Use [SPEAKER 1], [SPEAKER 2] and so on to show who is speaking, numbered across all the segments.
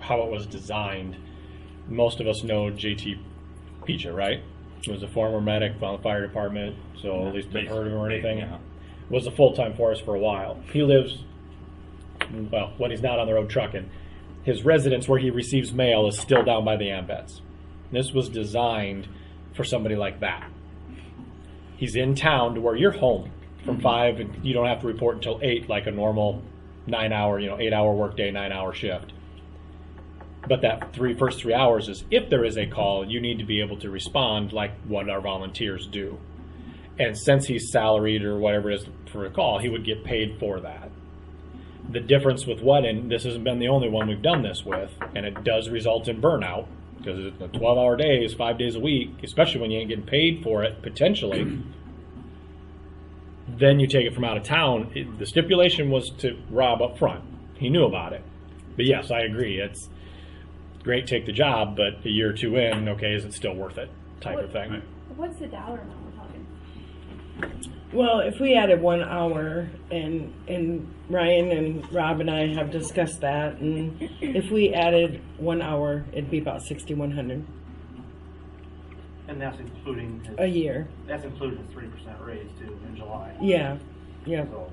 [SPEAKER 1] how it was designed, most of us know JT Picha, right? He was a former medic from the fire department, so at least they've heard of him or anything.
[SPEAKER 2] Yeah.
[SPEAKER 1] Was a full time for us for a while. He lives, well, when he's not on the road trucking, his residence where he receives mail is still down by the Ambets. This was designed for somebody like that. He's in town to where you're home from five, and you don't have to report until eight, like a normal nine hour, you know, eight hour workday, nine hour shift. But that three first three hours is if there is a call, you need to be able to respond like what our volunteers do. And since he's salaried or whatever it is for a call, he would get paid for that. The difference with what, and this hasn't been the only one we've done this with, and it does result in burnout because it's a 12 hour day is five days a week, especially when you ain't getting paid for it potentially. then you take it from out of town. It, the stipulation was to Rob up front. He knew about it. But yes, I agree. It's great, take the job, but a year or two in, okay, is it still worth it? Type of thing.
[SPEAKER 3] What's the dollar amount we're talking?
[SPEAKER 4] Well, if we added one hour, and and Ryan and Rob and I have discussed that, and if we added one hour, it'd be about sixty-one hundred
[SPEAKER 5] And that's including his,
[SPEAKER 4] a year.
[SPEAKER 5] that's including his three percent raise too in July.
[SPEAKER 4] Yeah, yeah,
[SPEAKER 5] So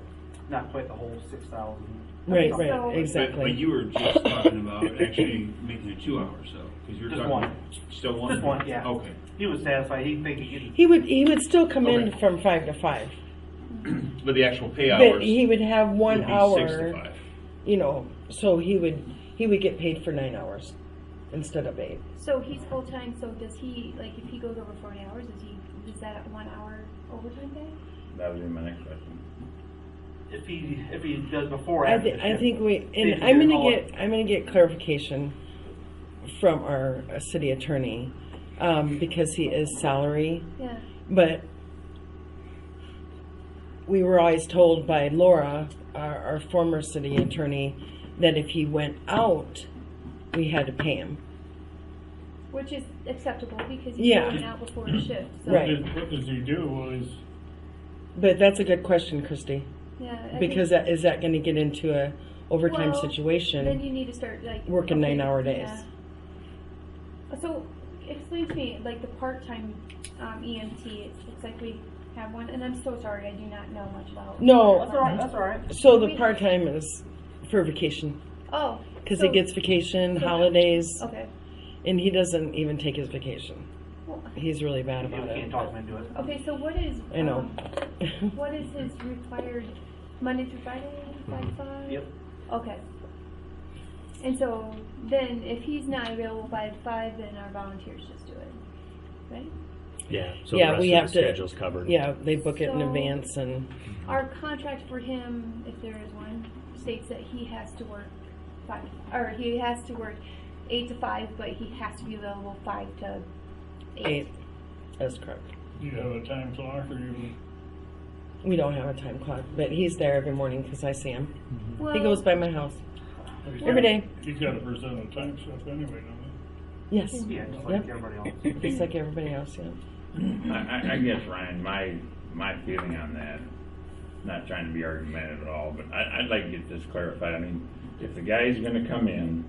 [SPEAKER 5] not quite the whole six thousand.
[SPEAKER 4] right,
[SPEAKER 3] So-
[SPEAKER 4] right,
[SPEAKER 2] But, but
[SPEAKER 4] exactly.
[SPEAKER 2] you were just talking about actually making it two hours, though, because you're
[SPEAKER 5] Just
[SPEAKER 2] talking.
[SPEAKER 5] one.
[SPEAKER 2] Still one?
[SPEAKER 5] Just one, yeah.
[SPEAKER 2] Okay.
[SPEAKER 5] He was satisfied. He think he could.
[SPEAKER 4] He would he would still come in
[SPEAKER 2] Okay.
[SPEAKER 4] from five to five,
[SPEAKER 2] But the actual pay
[SPEAKER 4] but
[SPEAKER 2] hours
[SPEAKER 4] he would have one
[SPEAKER 2] would be six to
[SPEAKER 4] hour.
[SPEAKER 2] five.
[SPEAKER 4] You know, so he would he would get paid for nine hours instead of eight.
[SPEAKER 3] So he's full time. So does he like if he goes over forty hours? Is he is that one hour overtime day?
[SPEAKER 6] That would be my next question.
[SPEAKER 5] If he if he does before or
[SPEAKER 4] I,
[SPEAKER 5] after.
[SPEAKER 4] th-
[SPEAKER 5] the
[SPEAKER 4] I
[SPEAKER 5] shift.
[SPEAKER 4] think we,
[SPEAKER 5] See
[SPEAKER 4] and
[SPEAKER 5] if we
[SPEAKER 4] I'm
[SPEAKER 5] can
[SPEAKER 4] gonna
[SPEAKER 5] call
[SPEAKER 4] get,
[SPEAKER 5] it.
[SPEAKER 4] I'm gonna get clarification from our uh, city attorney, um, because he is salary,
[SPEAKER 3] Yeah.
[SPEAKER 4] but we were always told by Laura, our, our former city attorney, that if he went out, we had to pay him.
[SPEAKER 3] Which is acceptable because he's
[SPEAKER 4] Yeah.
[SPEAKER 3] going out before a shift. So
[SPEAKER 4] Right.
[SPEAKER 7] What does- What does he do is,
[SPEAKER 4] But that's a good question, Christy,
[SPEAKER 3] Yeah. I think-
[SPEAKER 4] because that, is that gonna get into a overtime
[SPEAKER 3] Well, Then
[SPEAKER 4] situation?
[SPEAKER 3] you need to start like
[SPEAKER 4] Working
[SPEAKER 3] okay,
[SPEAKER 4] nine-hour days.
[SPEAKER 3] yeah. So explain to me like the part-time um, EMT. It's, it's like we have one, and I'm so sorry I do not know much about. E
[SPEAKER 4] No.
[SPEAKER 5] That's all right. That's all right.
[SPEAKER 4] So the part-time is for vacation,
[SPEAKER 3] Oh,
[SPEAKER 4] cause
[SPEAKER 3] so-
[SPEAKER 4] he gets vacation,
[SPEAKER 3] so-
[SPEAKER 4] holidays.
[SPEAKER 3] okay.
[SPEAKER 4] And he doesn't even take his vacation.
[SPEAKER 3] Well,
[SPEAKER 4] He's really bad
[SPEAKER 5] You
[SPEAKER 4] about
[SPEAKER 5] can't
[SPEAKER 4] it.
[SPEAKER 5] talk him into it.
[SPEAKER 3] Okay, so what is?
[SPEAKER 4] I know.
[SPEAKER 3] um, What is his required Monday through Friday, five to five?
[SPEAKER 5] Yep.
[SPEAKER 3] Okay. And so then if he's not available by five, then our volunteers just do it, right?
[SPEAKER 8] Yeah, so
[SPEAKER 4] Yeah,
[SPEAKER 8] the rest
[SPEAKER 4] we
[SPEAKER 8] of
[SPEAKER 4] have
[SPEAKER 8] the
[SPEAKER 4] to-
[SPEAKER 8] schedule's covered.
[SPEAKER 4] Yeah, they book it in
[SPEAKER 3] So-
[SPEAKER 4] advance and,
[SPEAKER 3] Our contract for him, if there is one, states that he has to work five, or he has to work eight to five, but he has to be available five to
[SPEAKER 4] Eight.
[SPEAKER 3] eight.
[SPEAKER 4] that's correct.
[SPEAKER 7] do you have a time clock or you?
[SPEAKER 4] We don't have a time clock, but he's there every morning because I see him. He
[SPEAKER 3] Well,
[SPEAKER 4] goes by my house
[SPEAKER 7] he's
[SPEAKER 4] every
[SPEAKER 7] got-
[SPEAKER 4] day.
[SPEAKER 7] He's got a percent of time stuff anyway, don't
[SPEAKER 4] Yes,
[SPEAKER 5] Yeah, just
[SPEAKER 4] Yep.
[SPEAKER 5] like everybody else.
[SPEAKER 4] just like everybody else, yeah.
[SPEAKER 6] I, I, I guess Ryan, my my feeling on that, not trying to be argumentative at all, but I, I'd like to get this clarified. I mean, if the guy's going to come in,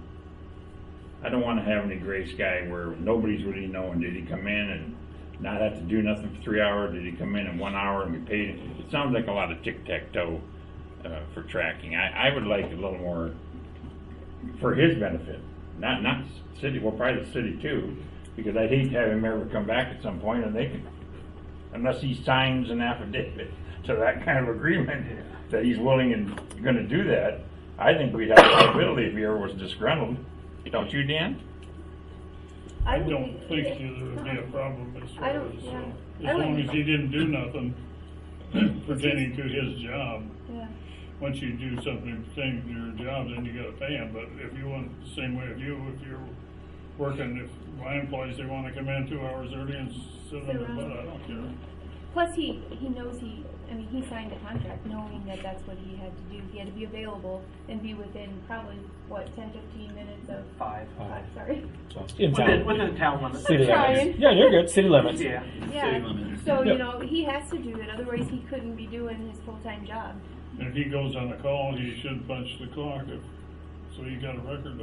[SPEAKER 6] I don't want to have any gray sky where nobody's really knowing. Did he come in and not have to do nothing for three hours? Did he come in in one hour and be paid? It sounds like a lot of tic tac toe uh, for tracking. I, I would like a little more for his benefit, not not city. Well, probably the city too, because I'd hate to have him ever come back at some point, and they could, unless he signs an affidavit to that kind of agreement that he's willing and going to do that. I think we'd have liability if he ever was disgruntled. Don't you, Dan?
[SPEAKER 7] I
[SPEAKER 3] would
[SPEAKER 7] don't
[SPEAKER 3] be-
[SPEAKER 7] think there would be a problem as far
[SPEAKER 3] I don't-
[SPEAKER 7] as,
[SPEAKER 3] yeah.
[SPEAKER 7] uh,
[SPEAKER 3] I
[SPEAKER 7] as long
[SPEAKER 3] wouldn't-
[SPEAKER 7] as he didn't do nothing pertaining to his job.
[SPEAKER 3] Yeah.
[SPEAKER 7] Once you do something pertaining to your job, then you gotta pay him, but if you want, the same way if you, if you're working, if my employees, they wanna come in two hours early and sit on the butt, I don't care.
[SPEAKER 3] Plus, he, he knows he, I mean, he signed a contract knowing that that's what he had to do. He had to be available and be within probably, what, 10, 15 minutes of,
[SPEAKER 5] Five.
[SPEAKER 3] i sorry.
[SPEAKER 1] In
[SPEAKER 5] Within,
[SPEAKER 1] town.
[SPEAKER 5] within town limits.
[SPEAKER 1] City limits.
[SPEAKER 3] Trying.
[SPEAKER 1] Yeah, you're good. City limits.
[SPEAKER 5] Yeah.
[SPEAKER 3] Yeah.
[SPEAKER 2] limits.
[SPEAKER 3] So,
[SPEAKER 1] Yep.
[SPEAKER 3] you know, he has to do that. Otherwise, he couldn't be doing his full-time job.
[SPEAKER 7] If he goes on a call, he should punch the clock, if, so you got a record